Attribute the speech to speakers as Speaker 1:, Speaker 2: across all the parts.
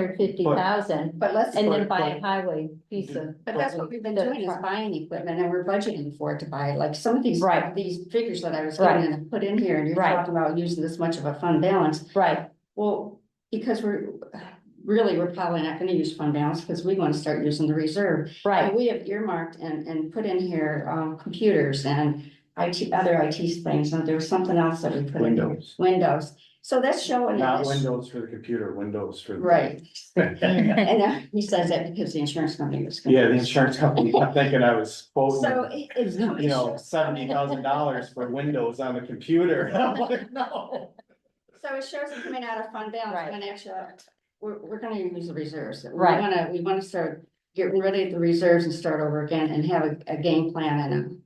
Speaker 1: or fifty thousand,
Speaker 2: But let's,
Speaker 1: and then
Speaker 2: but
Speaker 1: buy a highway piece of.
Speaker 2: that's what we've been doing is buying equipment and we're budgeting for it to buy, like some of these,
Speaker 1: Right.
Speaker 2: these figures that I was
Speaker 1: Right.
Speaker 2: getting and put in here and you're
Speaker 1: Right.
Speaker 2: talking about using this much of a fund balance.
Speaker 1: Right,
Speaker 2: Well, because we're, really, we're probably not gonna use fund balance because we want to start using the reserve. And
Speaker 1: right,
Speaker 2: we have earmarked and, and put in here, um, computers and IT, other IT things, and there was something else that we put in. here.
Speaker 3: Windows,
Speaker 2: Windows, so that's showing. in
Speaker 3: not
Speaker 2: this-
Speaker 3: windows for the computer, windows for. the-
Speaker 2: Right,
Speaker 3: Yeah,
Speaker 2: and uh, he says that because the insurance company was. gonna-
Speaker 3: the insurance company, I'm thinking I was
Speaker 2: So
Speaker 3: quoting,
Speaker 2: it- it's.
Speaker 3: you know, seventy thousand dollars for windows on the computer. I'm like, no.
Speaker 2: So it shows it coming out of fund
Speaker 1: Right.
Speaker 2: balance when actually, we're, we're gonna use the reserves. We
Speaker 1: Right.
Speaker 2: wanna, we wanna start getting rid of the reserves and start over again and have a, a game plan and. a-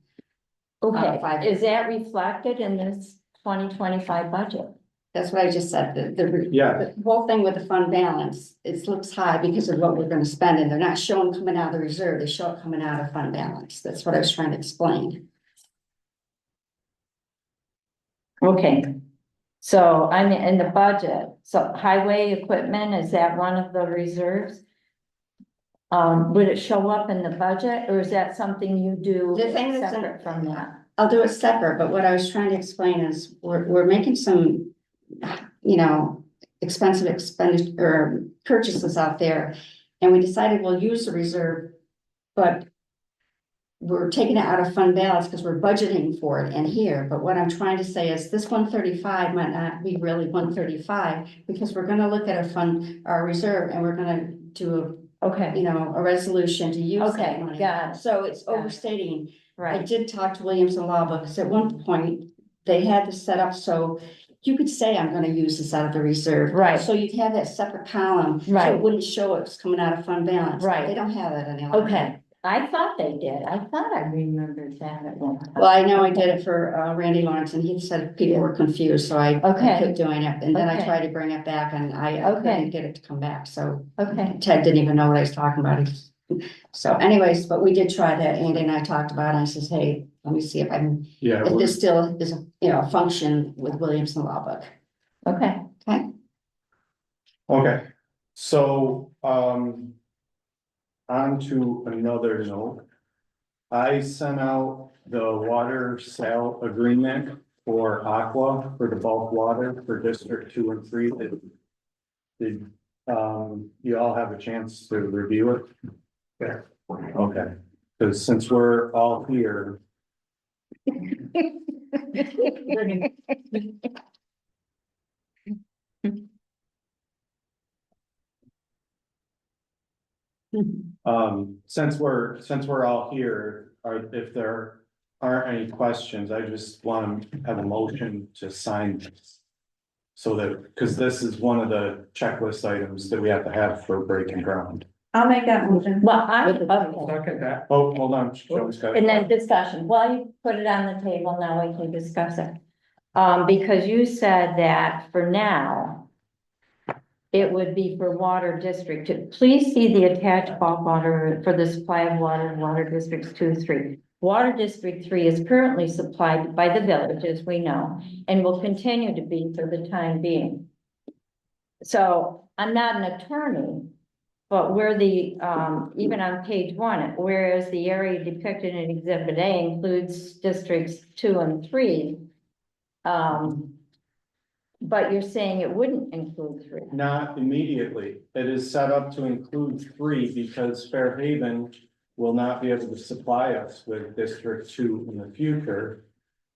Speaker 2: Uh, five.
Speaker 1: okay, is that reflected in this twenty twenty-five budget?
Speaker 2: That's what I just said, the, the.
Speaker 3: Yeah,
Speaker 2: The whole thing with the fund balance, it looks high because of what we're gonna spend and they're not showing coming out of the reserve, they show it coming out of fund balance. That's what I was trying to explain.
Speaker 1: Okay, so I'm in the budget, so highway equipment, is that one of the reserves? Um, would it show up in the budget, or is that something you do
Speaker 2: The thing that's in-
Speaker 1: separate from that?
Speaker 2: I'll do it separate, but what I was trying to explain is we're, we're making some, you know, expensive expenditure, or purchases out there. And we decided we'll use the reserve, but we're taking it out of fund balance because we're budgeting for it in here. But what I'm trying to say is this one thirty-five might not be really one thirty-five because we're gonna look at a fund, our reserve, and we're gonna do, a
Speaker 1: Okay,
Speaker 2: you know, a resolution to use
Speaker 1: Okay,
Speaker 2: that money.
Speaker 1: got it.
Speaker 2: So it's
Speaker 1: Got it.
Speaker 2: overstating I
Speaker 1: right,
Speaker 2: did talk to Williams and Lava, because at one point, they had this set up, so you could say, I'm gonna use this out of the reserve.
Speaker 1: Right.
Speaker 2: So you'd have that separate column. so
Speaker 1: Right.
Speaker 2: It wouldn't show it's coming out of fund balance.
Speaker 1: Right.
Speaker 2: They don't have that anymore.
Speaker 1: okay, I thought they did, I thought I remembered that at one
Speaker 2: Well,
Speaker 1: time.
Speaker 2: I know I did it for uh, Randy Lawrence, and he said people were confused, so I I
Speaker 1: Okay.
Speaker 2: kept doing it, and then I
Speaker 1: Okay.
Speaker 2: tried to bring it back, and I I
Speaker 1: Okay.
Speaker 2: couldn't get it to come back, so.
Speaker 1: Okay,
Speaker 2: Ted didn't even know what I was talking about. So anyways, but we did try that, Andy and I talked about it, and I says, hey, let me see if I can
Speaker 3: yeah,
Speaker 2: If
Speaker 3: we're-
Speaker 2: this still is, a you know, a function with Williams and Lubbock.
Speaker 1: okay,
Speaker 3: okay, so, um. On to another note. I sent out the water sale agreement for Aqua for the bulk water for District Two and Three. Did- Did, um, you all have a chance to review it? Yeah. Okay, because since we're all here. Um, since we're, since we're all here, or if there aren't any questions, I just want to have a motion to sign this. So that, because this is one of the checklist items that we have to have for breaking ground.
Speaker 4: I'll make that motion.
Speaker 1: well, I, okay.
Speaker 5: Second that.
Speaker 3: Oh, hold on. Joey's got it.
Speaker 1: And then discussion, while you put it on the table, now we can discuss it. Um, because you said that for now, it would be for water district two. Please see the attached bulk water for the supply of water in water districts two, and three. Water district three is currently supplied by the village, as we know, and will continue to be for the time being. So I'm not an attorney, but where the, um, even on page one, whereas the area depicted in exhibit A includes districts two and three. Um. But you're saying it wouldn't include three.
Speaker 3: Not immediately. It is set up to include three because Fairhaven will not be able to supply us with District Two in the future.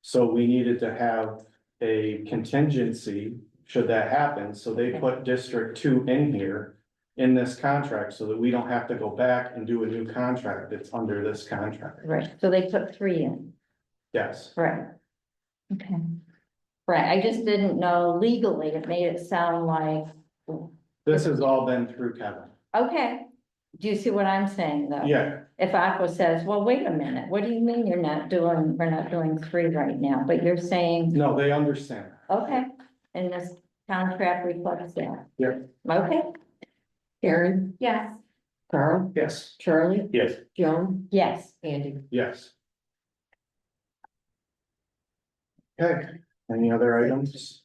Speaker 3: So we needed to have a contingency should that happen. So they put District Two in here in this contract so that we don't have to go back and do a new contract that's under this contract.
Speaker 1: Right. So they put three in,
Speaker 3: Yes.
Speaker 1: right? Okay. Right, I just didn't know legally, it made it sound like,
Speaker 3: This has all been through Kevin.
Speaker 1: okay. Do you see what I'm saying though?
Speaker 3: Yeah,
Speaker 1: If Aqua says, well, wait a minute, what do you mean you're not doing, we're not doing three right now, but you're saying
Speaker 3: no, they understand.
Speaker 1: Okay, and this contract reflects that?
Speaker 3: Yeah.
Speaker 1: Okay,
Speaker 4: Karen,
Speaker 1: yes.
Speaker 4: Carl,
Speaker 3: Yes.
Speaker 4: Charlie,
Speaker 3: Yes.
Speaker 4: Joan,
Speaker 1: Yes,
Speaker 4: Andy.
Speaker 3: Yes. Okay, any other items?